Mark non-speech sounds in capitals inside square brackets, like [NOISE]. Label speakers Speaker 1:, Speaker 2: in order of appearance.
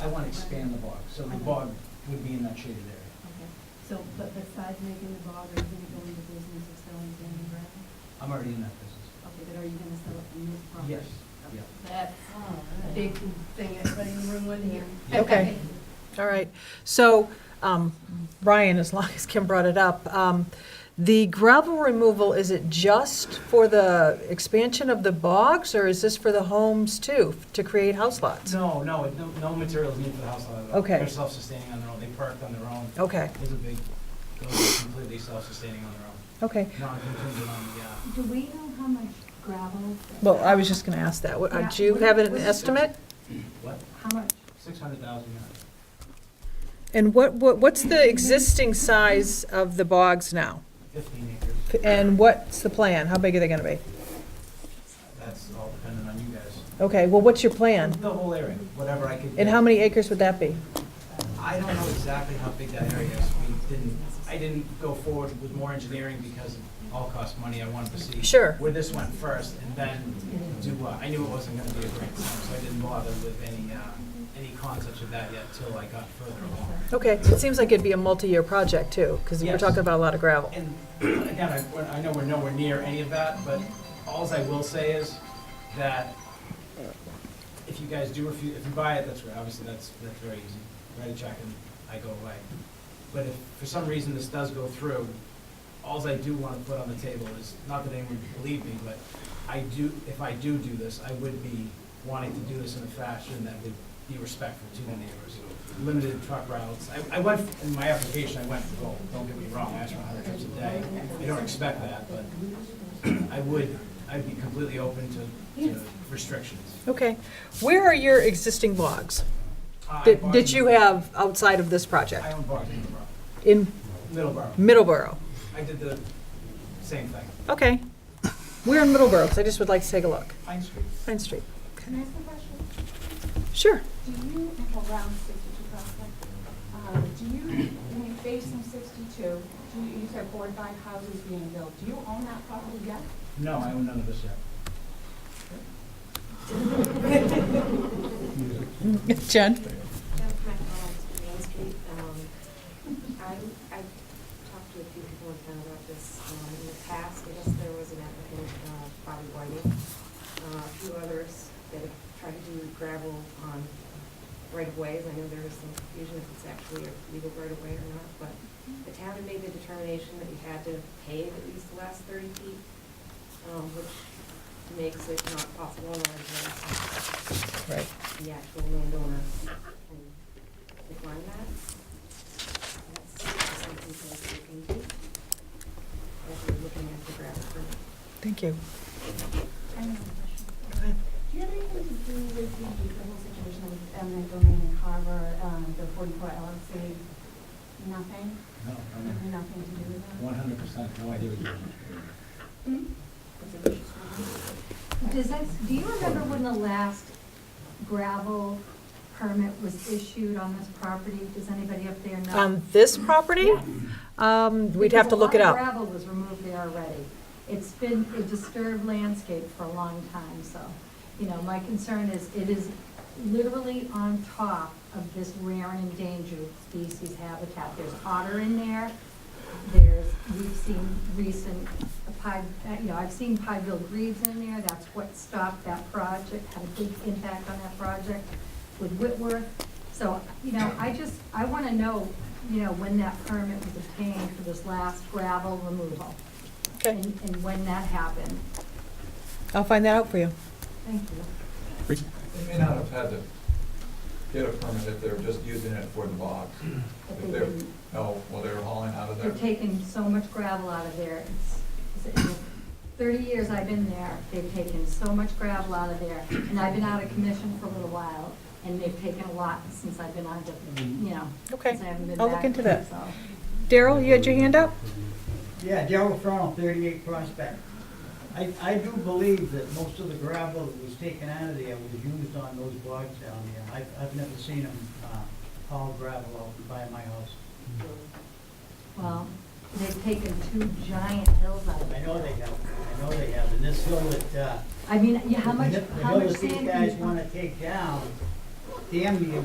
Speaker 1: I want to expand the bog, so the
Speaker 2: Okay.
Speaker 1: bog would be in that shaded area.
Speaker 2: Okay, so, but besides making the bog, are you gonna go into business of selling sand and gravel?
Speaker 1: I'm already in that business.
Speaker 2: Okay, but are you gonna sell it from this property?
Speaker 1: Yes, yeah.
Speaker 2: That's a big thing, everybody in the room wouldn't hear. [LAUGHS]
Speaker 3: Okay. All right, so, um, Brian, as long as Kim brought it up, um, the gravel removal, is it just for the expansion of the bogs, or is this for the homes too, to create house lots?
Speaker 1: No, no, it- no, no materials needed for the house lot at all.
Speaker 3: Okay. Oh.
Speaker 1: They're self-sustaining on their own, they parked on their own.
Speaker 3: Okay,
Speaker 1: It's a big, those are completely self-sustaining on their own,
Speaker 3: okay.
Speaker 1: not contingent on the, uh,
Speaker 2: Do we know how much gravel?
Speaker 3: Well, I was just gonna ask that. What- uh, Do you have an estimate?
Speaker 1: what,
Speaker 2: How much?
Speaker 1: six hundred thousand yards?
Speaker 3: And what, what, what's the existing size of the bogs now?
Speaker 1: Fifteen acres,
Speaker 3: And what's the plan? How big are they gonna be?
Speaker 1: that's all dependent on you guys.
Speaker 3: Okay, well, what's your plan?
Speaker 1: The whole area, whatever I could.
Speaker 3: And
Speaker 1: get.
Speaker 3: how many acres would that be?
Speaker 1: I don't know exactly how big that area is. We didn't, I didn't go forward with more engineering because it all costs money. I wanted to see.
Speaker 3: Sure.
Speaker 1: Where this went first and then do what? I knew it wasn't gonna be a great time, so I didn't bother with any, uh, any concepts of that yet till I got further along.
Speaker 3: Okay, it seems like it'd be a multi-year project too, because we're
Speaker 1: Yes.
Speaker 3: talking about a lot of gravel.
Speaker 1: And again, I, we're- I know we're nowhere near any of that, but alls I will say is that if you guys do, if you, if you buy it, that's right, obviously, that's, that's very easy. Write a check and I go away. But if for some reason this does go through, alls I do want to put on the table is, not that anyone would believe me, but I do, if I do do this, I would be wanting to do this in a fashion that would be respectful to the neighbors. Limited truck routes. I, I went, in my application, I went for gold, don't get me wrong, I asked for hundred trips a day. I don't expect that, but [CLEARS THROAT] I would, I'd be completely open to, to restrictions.
Speaker 3: Okay, where are your existing logs
Speaker 1: Uh, I
Speaker 3: that,
Speaker 1: bought
Speaker 3: that
Speaker 1: in-
Speaker 3: you have outside of this
Speaker 1: I
Speaker 3: project?
Speaker 1: own bars in Middleborough, Middleborough.
Speaker 3: In Middleborough?
Speaker 1: I did the same thing,
Speaker 3: Okay, we're in Middleborough, so I just would like to take a look.
Speaker 1: Pine Street.
Speaker 3: Pine Street,
Speaker 4: Can I ask a question?
Speaker 3: sure.
Speaker 4: Do you, at around sixty-two Prospect, um, do you, when you face from sixty-two, do you, you said board by houses being built, do you own that property yet?
Speaker 1: No, I own none of this yet.
Speaker 3: Jen?
Speaker 5: Jennifer McDonald, Main Street. Um, I, I talked to a few people in town about this um, in the past. I guess there was an applicant, uh, Bobby Whiting, uh, a few others that have tried to do gravel on right of ways. I know there was some confusion if it's actually a legal right of way or not, but the town had made the determination that you had to pave at least the last thirty feet, um, which makes it not possible on a right of way
Speaker 3: Right.
Speaker 5: the actual landowner can decline that. That's something to look into. As we're looking at the graph.
Speaker 3: Thank you.
Speaker 4: I have a question. Do you have anything to do with the, the whole situation with eminent domain in Carver, um, the forty-four LLC? Nothing,
Speaker 1: No,
Speaker 4: nothing to do with that?
Speaker 1: one hundred percent, no idea what you're doing.
Speaker 6: Does that, do you remember when the last gravel permit was issued on this property? Does anybody up there know?
Speaker 3: On this property? Um, we'd have to look it
Speaker 6: Because
Speaker 3: up.
Speaker 6: a lot of gravel was removed there already. It's been a disturbed landscape for a long time, so, you know, my concern is it is literally on top of this rare and endangered species habitat. There's otter in there, there's, we've seen recent, pie, uh, you know, I've seen pie-billed grebes in there, that's what stopped that project, had a big impact on that project with Whitworth. So, you know, I just, I want to know, you know, when that permit was obtained for this last gravel removal.
Speaker 3: Okay.
Speaker 6: And, and when that happened.
Speaker 3: I'll find that out for you.
Speaker 6: Thank you.
Speaker 7: They may not have had to get a permit if they were just using it for the box.
Speaker 6: But
Speaker 7: If
Speaker 6: they
Speaker 7: they're,
Speaker 6: didn't.
Speaker 7: no, well, they were hauling out of there.
Speaker 6: They've taken so much gravel out of there. It's- it's- in Thirty years I've been there, they've taken so much gravel out of there, and I've been out of commission for a little while, and they've taken a lot since I've been on, the- you know,
Speaker 3: Okay,
Speaker 6: since I haven't been back.
Speaker 3: I'll look into that.
Speaker 6: so.
Speaker 3: Daryl, you had your hand up?
Speaker 8: Yeah, Darrell Fromm, 38 Prospect. I, I do believe that most of the gravel that was taken out of there was used on those blocks down there. I've, I've never seen them uh, haul gravel out by my house.
Speaker 6: Well, they've taken two giant hills out of
Speaker 8: I
Speaker 6: there.
Speaker 8: know they have, I know they have, and this hill that, uh,
Speaker 6: I mean, yeah, how much,
Speaker 8: the hill
Speaker 6: how much
Speaker 8: that
Speaker 6: sand
Speaker 8: these
Speaker 6: can you
Speaker 8: guys want to take down, damn near